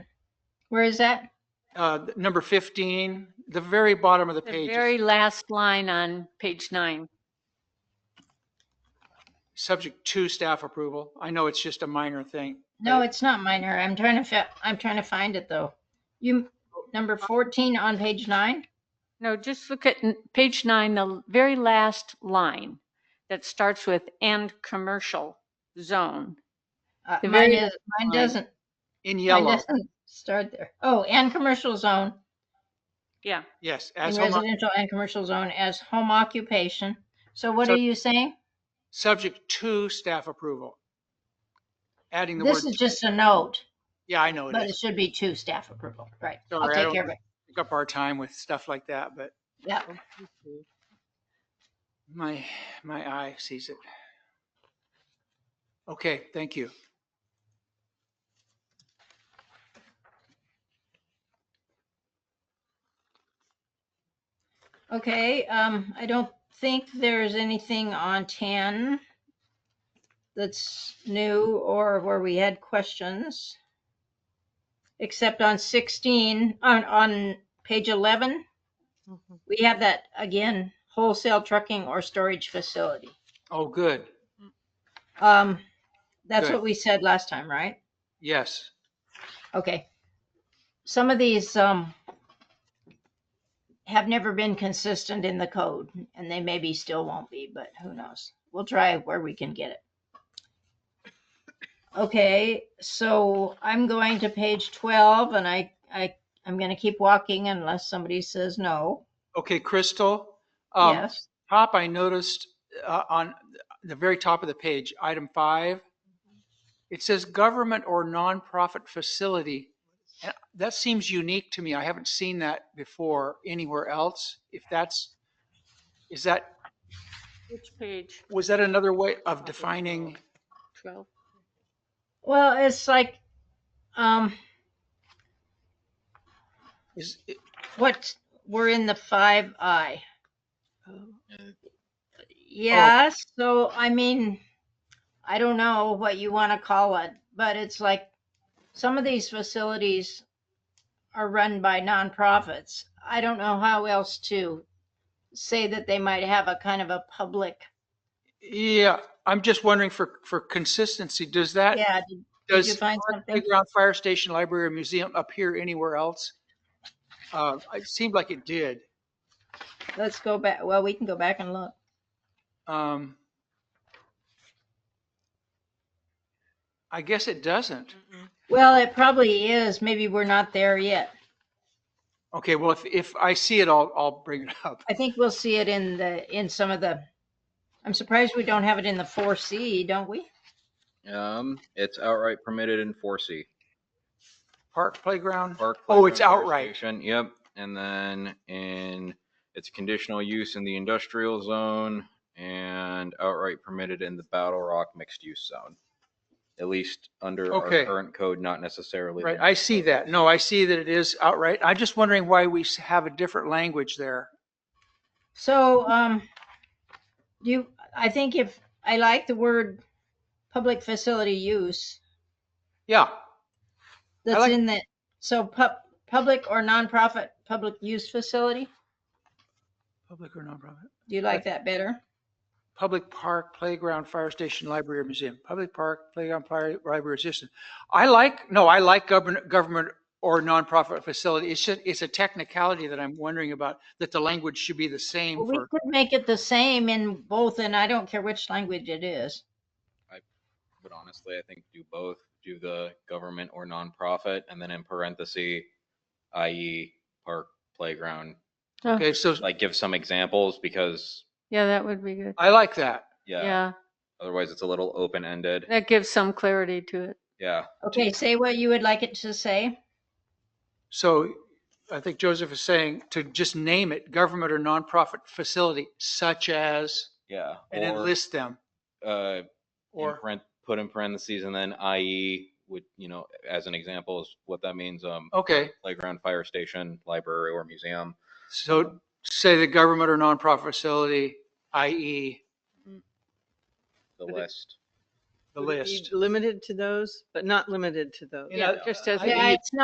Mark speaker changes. Speaker 1: Where is that?
Speaker 2: Uh, Number 15, the very bottom of the
Speaker 1: The
Speaker 2: page.
Speaker 1: very last line on page nine.
Speaker 2: Subject to staff approval. I know it's just a minor thing.
Speaker 3: No,
Speaker 2: Right.
Speaker 3: it's not minor. I'm trying to, fi- I'm trying to find it though. You, number 14 on page nine?
Speaker 1: No, just look at n- page nine, the l- very last line that starts with and commercial zone.
Speaker 3: Uh,
Speaker 1: The
Speaker 3: Mine
Speaker 1: very
Speaker 3: is, mine
Speaker 1: line.
Speaker 3: doesn't,
Speaker 2: In
Speaker 3: mine
Speaker 2: yellow,
Speaker 3: doesn't start there. Oh, and commercial zone,
Speaker 1: Yeah,
Speaker 2: yes,
Speaker 3: in
Speaker 2: as home, oc-
Speaker 3: residential and commercial zone as home occupation. So what
Speaker 2: So-
Speaker 3: are you saying?
Speaker 2: subject to staff approval. Adding the word.
Speaker 3: This is just a note,
Speaker 2: Yeah, I know it
Speaker 3: but it
Speaker 2: is.
Speaker 3: should be to staff approval, right? I'll
Speaker 2: Sorry, I
Speaker 3: take
Speaker 2: don't-
Speaker 3: care of it.
Speaker 2: Pick up our time with stuff like that, but
Speaker 3: Yeah,
Speaker 2: my, my eye sees it. Okay, thank you.
Speaker 3: okay, um, I don't think there's anything on 10 that's new or where we had questions. Except on 16, on, on page 11, we have that again, wholesale trucking or storage facility.
Speaker 2: Oh, good.
Speaker 3: Um, that's
Speaker 2: Good.
Speaker 3: what we said last time, right?
Speaker 2: Yes.
Speaker 3: Okay. Some of these um have never been consistent in the code, and they maybe still won't be, but who knows? We'll try where we can get it. Okay, so I'm going to page 12, and I, I, I'm gonna keep walking unless somebody says no.
Speaker 2: Okay, Crystal. um,
Speaker 3: Yes,
Speaker 2: Top, I noticed uh, on the very top of the page, item five, it says government or nonprofit facility. And That seems unique to me. I haven't seen that before anywhere else. If that's, is that,
Speaker 1: which page?
Speaker 2: was that another way of defining?
Speaker 1: 12.
Speaker 3: well, it's like, um,
Speaker 2: Is,
Speaker 3: what, we're in the five I.
Speaker 1: Oh,
Speaker 3: Yeah, so I mean, I don't know what you want to call it, but it's like some of these facilities are run by nonprofits. I don't know how else to say that they might have a kind of a public,
Speaker 2: yeah, I'm just wondering for, for consistency, does that?
Speaker 3: yeah, did- did you
Speaker 2: Does
Speaker 3: find something?
Speaker 2: playground, fire station, library, or museum appear anywhere else? Uh, It seemed like it did.
Speaker 3: Let's go back, well, we can go back and look.
Speaker 2: Um, I guess it doesn't.
Speaker 3: Well, it probably is, maybe we're not there yet.
Speaker 2: Okay, well, if, if I see it, I'll, I'll bring it up.
Speaker 3: I think we'll see it in the, in some of the, I'm surprised we don't have it in the four C, don't we?
Speaker 4: Um, it's outright permitted in four C.
Speaker 2: Park playground,
Speaker 4: Park.
Speaker 2: Oh, it's
Speaker 4: playground, fire
Speaker 2: outright.
Speaker 4: station, Yep, and then in, it's conditional use in the industrial zone and outright permitted in the Battle Rock mixed use zone. At least under our
Speaker 2: Okay.
Speaker 4: current code, not necessarily.
Speaker 2: right, I see that. No, I see that it is outright. I'm just wondering why we s- have a different language there.
Speaker 3: So, um, you, I think if, I like the word public facility use
Speaker 2: Yeah,
Speaker 3: that's
Speaker 2: like-
Speaker 3: in that, so pub, public or nonprofit public use facility?
Speaker 2: public or nonprofit.
Speaker 3: Do you like that better?
Speaker 2: Public park, playground, fire station, library, or museum. Public park, playground, fire, library, or system. I like, no, I like government, government or nonprofit facility. It's just, it's a technicality that I'm wondering about, that the language should be the same
Speaker 3: Well, We
Speaker 2: for.
Speaker 3: could make it the same in both and I don't care which language it is.
Speaker 4: But honestly, I think do both, do the government or nonprofit, and then in parentheses, i.e. park, playground.
Speaker 2: Okay, so
Speaker 4: Like give some examples because,
Speaker 1: Yeah, that would be good.
Speaker 2: I like that.
Speaker 4: yeah,
Speaker 1: Yeah,
Speaker 4: otherwise it's a little open-ended.
Speaker 1: that gives some clarity to it.
Speaker 4: Yeah.
Speaker 3: Okay, say what you would like it to say.
Speaker 2: So I think Joseph is saying to just name it government or nonprofit facility such as,
Speaker 4: Yeah.
Speaker 2: and then
Speaker 4: or,
Speaker 2: list them.
Speaker 4: Uh, in
Speaker 2: Or,
Speaker 4: paren- put in parentheses and then IE would, you know, as an example is what that means, um,
Speaker 2: okay,
Speaker 4: playground, fire station, library or museum.
Speaker 2: so say the government or nonprofit facility, e, i.e.
Speaker 4: The
Speaker 5: But it-
Speaker 4: list,
Speaker 2: the
Speaker 5: Would it be
Speaker 2: list.
Speaker 5: Limited to those, but not limited to those.
Speaker 2: You know,
Speaker 1: Just as.
Speaker 2: I-
Speaker 3: Yeah, it's not